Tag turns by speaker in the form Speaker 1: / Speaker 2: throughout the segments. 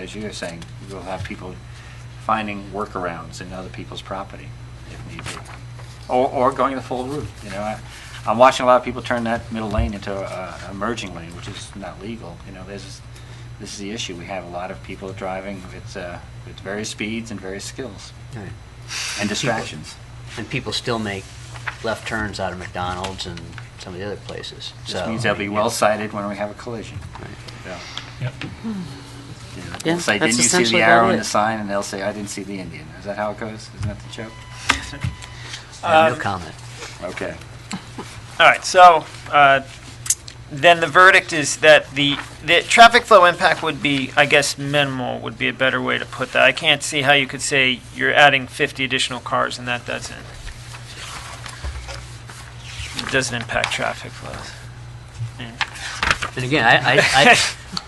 Speaker 1: As you were saying, we'll have people finding workarounds in other people's property if need be. Or, or going the full route, you know. I- I'm watching a lot of people turn that middle lane into a, a merging lane, which is not legal, you know, this, this is the issue. We have a lot of people driving with, uh, with various speeds and various skills
Speaker 2: Right.
Speaker 1: and distractions.
Speaker 2: And people still make left turns out of McDonald's and some of the other places, so.
Speaker 1: This means they'll be well sighted when we have a collision.
Speaker 2: Right.
Speaker 1: Yeah.
Speaker 3: Yep.
Speaker 1: You know,
Speaker 4: Yeah,
Speaker 1: they'll Say,
Speaker 4: that's
Speaker 1: didn't you see
Speaker 4: essentially
Speaker 1: the
Speaker 4: about
Speaker 1: arrow in
Speaker 4: it.
Speaker 1: the sign? And they'll say, I didn't see the Indian. Is that how it goes? Isn't that the joke?
Speaker 2: Yeah, No
Speaker 3: Um,
Speaker 2: comment.
Speaker 1: Okay.
Speaker 3: All right, so uh, then the verdict is that the, the traffic flow impact would be, I guess, minimal would be a better way to put that. I can't see how you could say you're adding 50 additional cars and that doesn't, it doesn't impact traffic flows.
Speaker 2: And again, I, I, I-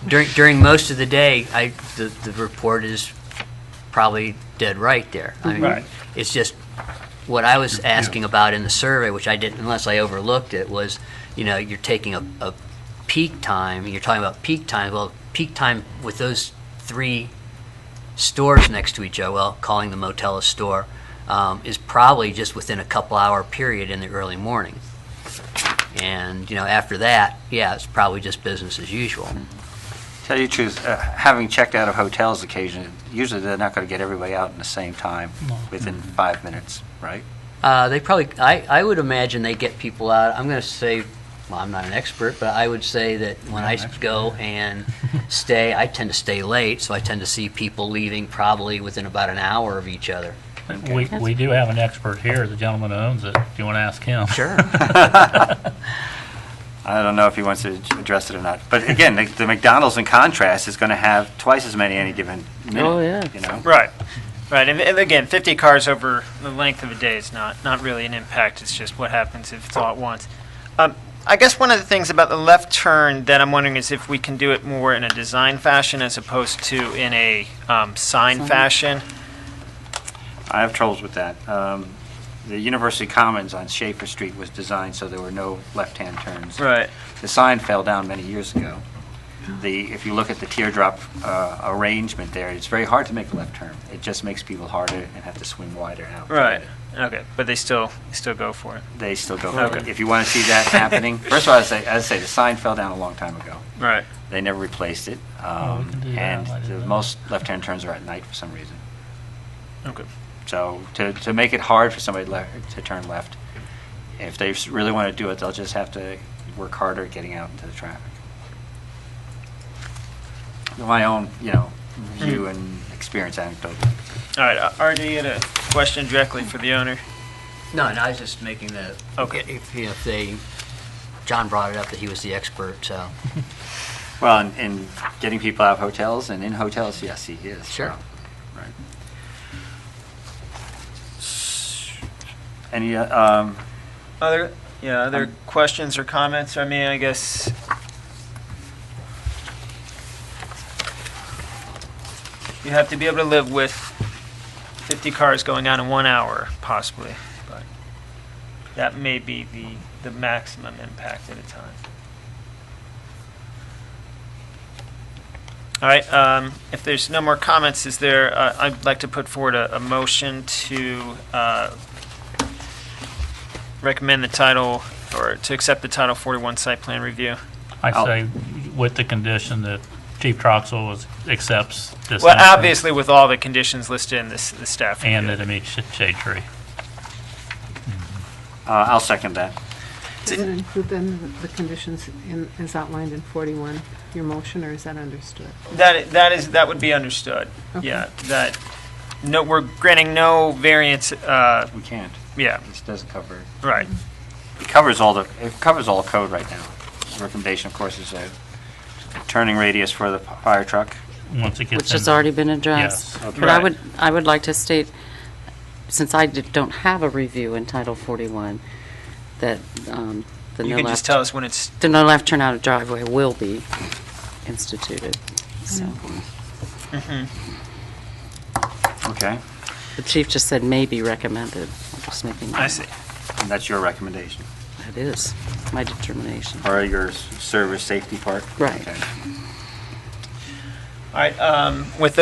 Speaker 2: during, during most of the day, I, the, the report is probably dead right there. I mean,
Speaker 3: Right.
Speaker 2: It's just, what I was asking about in the survey, which I didn't, unless I overlooked it, was, you know, you're taking a, a peak time, you're talking about peak time, well, peak time with those three stores next to each other, well, calling the motel a store, um, is probably just within a couple hour period in the early morning. And, you know, after that, yeah, it's probably just business as usual.
Speaker 1: Tell you the truth, uh, having checked out of hotels occasionally, usually they're not going to get everybody out in the same time within five minutes, right?
Speaker 2: Uh, they probably, I, I would imagine they get people out, I'm gonna say, well, I'm not an expert, but I would say that when I go and stay, I tend to stay late, so I tend to see people leaving probably within about an hour of each other.
Speaker 5: We, we do have an expert here, the gentleman who owns it. Do you want to ask him?
Speaker 2: Sure.
Speaker 1: I don't know if he wants to ad- address it or not. But again, the- the McDonald's in contrast is going to have twice as many any given minute.
Speaker 4: Oh, yeah.
Speaker 1: You know?
Speaker 3: Right, right, and- and again, 50 cars over the length of a day is not, not really an impact, it's just what happens if it's all at once. Um, I guess one of the things about the left turn that I'm wondering is if we can do it more in a design fashion as opposed to in a um, sign fashion.
Speaker 1: I have troubles with that. Um, The University Commons on Schaefer Street was designed so there were no left-hand turns.
Speaker 3: Right.
Speaker 1: The sign fell down many years ago. The, if you look at the teardrop uh, arrangement there, it's very hard to make a left turn. It just makes people harder and have to swing wider out.
Speaker 3: Right, okay, but they still, still go for it.
Speaker 1: They still go.
Speaker 3: Okay.
Speaker 1: If you want to see that happening, first of all, as I, as I say, the sign fell down a long time ago.
Speaker 3: Right.
Speaker 1: They never replaced it.
Speaker 5: Oh, we
Speaker 1: um,
Speaker 5: can do that.
Speaker 1: And
Speaker 5: I didn't
Speaker 1: the
Speaker 5: know.
Speaker 1: most left-hand turns are at night for some reason.
Speaker 3: Okay.
Speaker 1: So to, to make it hard for somebody le- to turn left, if they s- really want to do it, they'll just have to work harder at getting out into the traffic. My own, you know, view and experience anecdote.
Speaker 3: All right, uh, Art, do you had a question directly for the owner?
Speaker 2: No, and I was just making the,
Speaker 3: Okay.
Speaker 2: if, if they, John brought it up that he was the expert, so.
Speaker 1: Well, and, and getting people out of hotels and in hotels, yes, he is.
Speaker 2: Sure.
Speaker 1: so, Right. Any, uh, um,
Speaker 3: Other, yeah, other questions or comments? I mean, I guess, you have to be able to live with 50 cars going out in one hour, possibly, but that may be the, the maximum impact at a time. All right, um, if there's no more comments, is there, uh, I'd like to put forward a, a motion to, uh, recommend the title, or to accept the Title 41 site plan review.
Speaker 5: I
Speaker 1: I'll-
Speaker 5: say with the condition that Chief Troxel is- accepts this.
Speaker 3: Well,
Speaker 5: action
Speaker 3: obviously with all the conditions listed in this, the staff.
Speaker 5: And that
Speaker 3: review.
Speaker 5: it meets sh- shade tree.
Speaker 1: uh, I'll second that.
Speaker 4: Does it include then the the conditions in, as outlined in 41, your motion, or is that understood?
Speaker 3: That, that is, that would be understood.
Speaker 4: Okay.
Speaker 3: Yeah, that, no, we're granting no variance, uh,
Speaker 1: We can't.
Speaker 3: yeah,
Speaker 1: This doesn't cover it.
Speaker 3: right.
Speaker 1: It covers all the, it covers all code right now. The Recommendation, of course, is a turning radius for the p- fire truck.
Speaker 5: Once it gets in.
Speaker 4: Which has already been
Speaker 5: Yes.
Speaker 4: addressed.
Speaker 1: Okay.
Speaker 4: But I
Speaker 3: Right.
Speaker 4: would, I would like to state, since I did- don't have a review in Title 41, that um, the
Speaker 3: You
Speaker 4: no
Speaker 3: can just
Speaker 4: left,
Speaker 3: tell us when it's,
Speaker 4: the no left turn out of driveway will be instituted. So,
Speaker 1: Okay.
Speaker 4: the chief just said may be recommended. I'm just making
Speaker 3: I see.
Speaker 1: And that's your recommendation,
Speaker 4: That is my determination.
Speaker 1: or your s- service safety part?
Speaker 4: Right.
Speaker 1: Okay.
Speaker 3: All right, um, with those